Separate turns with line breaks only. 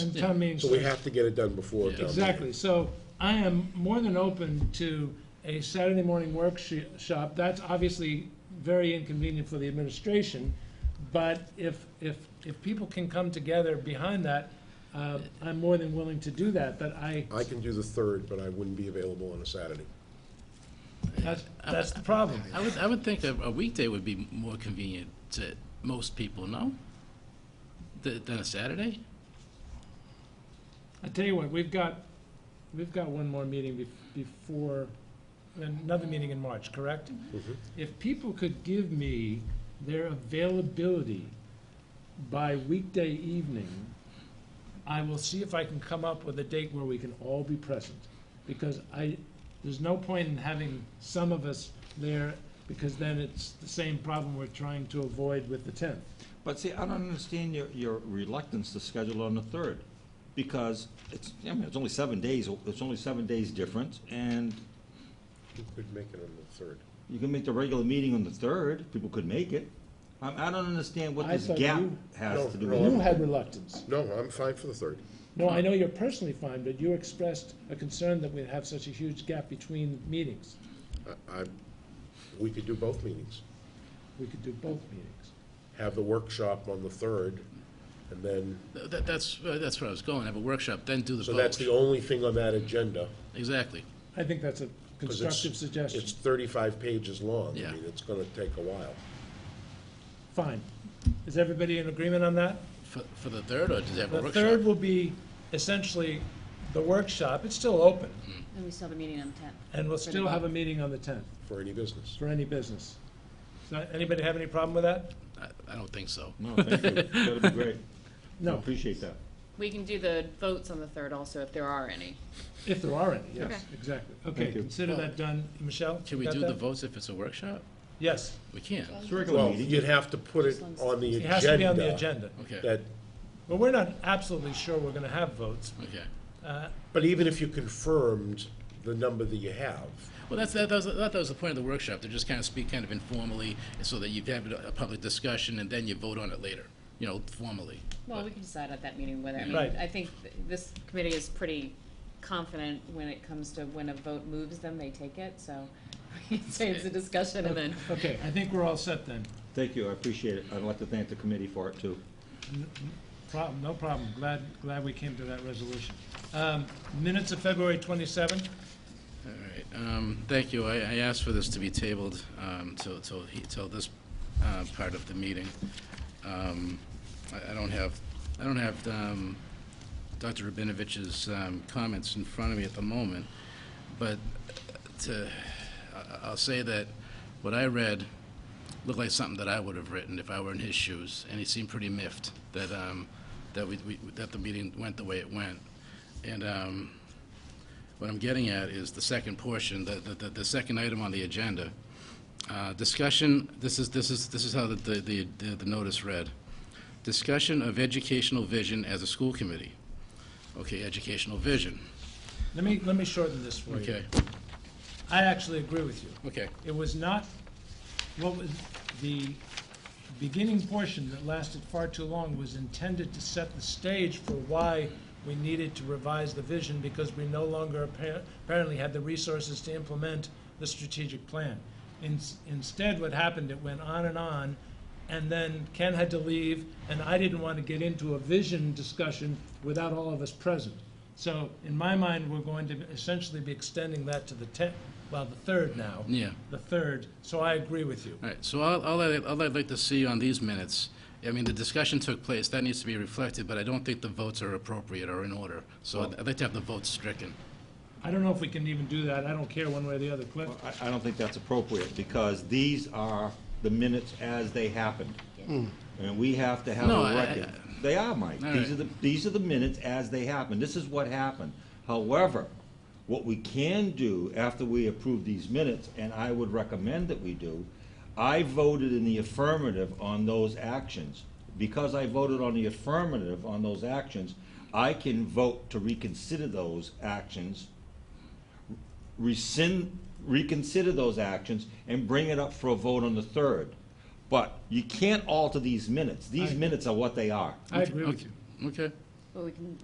and town meeting
So we
starts.
have to get it done before town meeting.
Exactly, so I am more than open to a Saturday morning workshop. That's obviously very inconvenient for the administration, but if, if, if people can come together behind that, uh, I'm more than willing to do that, but I,
I can do the third, but I wouldn't be available on a Saturday.
that's, that's the problem.
I would, I would think a, a weekday would be more convenient to most people, no? Th- Than a Saturday?
I tell you what, we've got, we've got one more meeting bef- before, another meeting in March, correct? If people could give me their availability by weekday evening, I will see if I can come up with a date where we can all be present. Because I, there's no point in having some of us there, because then it's the same problem we're trying to avoid with the tenth.
But see, I don't understand your, your reluctance to schedule on the third, because it's, I mean, it's only seven days, it's only seven days difference, and
You could make it on the third.
you can make the regular meeting on the third, people could make it. I, I don't understand what
I
this
thought
gap
you-
No,
has to do
no,
with
You
it.
had reluctance.
No, I'm fine for the third.
No, I know you're personally fine, but you expressed a concern that we'd have such a huge gap between meetings.
I, I, we could do both meetings.
We could do both meetings.
Have the workshop on the third, and then,
Th- That, that's, uh, that's where I was going, have a workshop, then do the
so that's
vote.
the only thing on that agenda.
Exactly.
I think that's a
'cause it's-
constructive suggestion.
It's thirty-five pages long.
Yeah.
I mean, it's gonna take a while.
Fine. Is everybody in agreement on that?
For, for the third, or does it have a
The
workshop?
third will be essentially the workshop. It's still open,
And we still have a meeting on the tenth.
and we'll still have a meeting on the 10th
for any business.
for any business. So anybody have any problem with that?
I, I don't think so.
No, thank you, that'd be great. I
No,
Appreciate that.
We can do the votes on the third also, if there are any.
if there are any, yes,
Okay.
exactly. Okay,
Thank you.
consider that done. Michelle?
Can we
got
do the
that?
votes if it's a workshop?
Yes,
We can.
It's a regular
Well,
meeting,
you'd have to put it on the
it
agenda.
has to be on the agenda.
Okay,
That,
Well, we're not absolutely sure we're going to have votes.
okay.
Uh,
but even if you confirmed the number that you have,
Well, that's, that, that was, that was the point of the workshop, to just kind of speak kind of informally, so that you have a a public discussion, and then you vote on it later, you know, formally.
Well, we can decide at that meeting whether, I mean,
Right.
I think th- this committee is pretty confident when it comes to when a vote moves them, they take it, so we can say it's a discussion and then
Okay, I think we're all set then.
thank you, I appreciate it, I'd like to thank the committee for it too.
Problem, no problem. Glad, glad we came to that resolution. Um, Minutes of February 27th?
All right, um, thank you. I, I asked for this to be tabled, um, till, till, he- till this, uh, part of the meeting. Um, I, I don't have, I don't have, um, Dr. Rabinovich's, um, comments in front of me at the moment, but to, I, I'll say that what I read looked like something that I would have written if I were in his shoes, and he seemed pretty miffed that, um, that we, we, that the meeting went the way it went. And, um, what I'm getting at is the second portion, the, the, the- the second item on the agenda. Uh, Discussion, this is, this is, this is how the, the, the the notice read. Discussion of educational vision as a school committee. Okay, educational vision.
Let me, let me shorten this for you.
Okay,
I actually agree with you.
okay,
It was not, what was, the beginning portion that lasted far too long was intended to set the stage for why we needed to revise the vision because we no longer appar- apparently had the resources to implement the strategic plan. In- Instead, what happened, it went on and on, and then Ken had to leave, and I didn't want to get into a vision discussion without all of us present. So in my mind, we're going to essentially be extending that to the 10th, well, the 3rd now
yeah.
the third, so I agree with you.
All right, so all, all I, all I'd like to see on these minutes, I mean, the discussion took place, that needs to be reflected, but I don't think the votes are appropriate or in order. So I'd I'd like to have the votes stricken.
I don't know if we can even do that, I don't care one way or the other, Cliff.
Well, I, I don't think that's appropriate, because these are the minutes as they happened. And we have to have
No, I-
a record. They are, Mike.
All
These
right.
are the, these are the minutes as they happen. This is what happened. However, what we can do after we approve these minutes, and I would recommend that we do, I voted in the affirmative on those actions. Because I voted on the affirmative on those actions, I can vote to reconsider those actions rescind, reconsider those actions and bring it up for a vote on the third. But you can't alter these minutes. These minutes are what they are.
I agree with you.
Okay.
But we can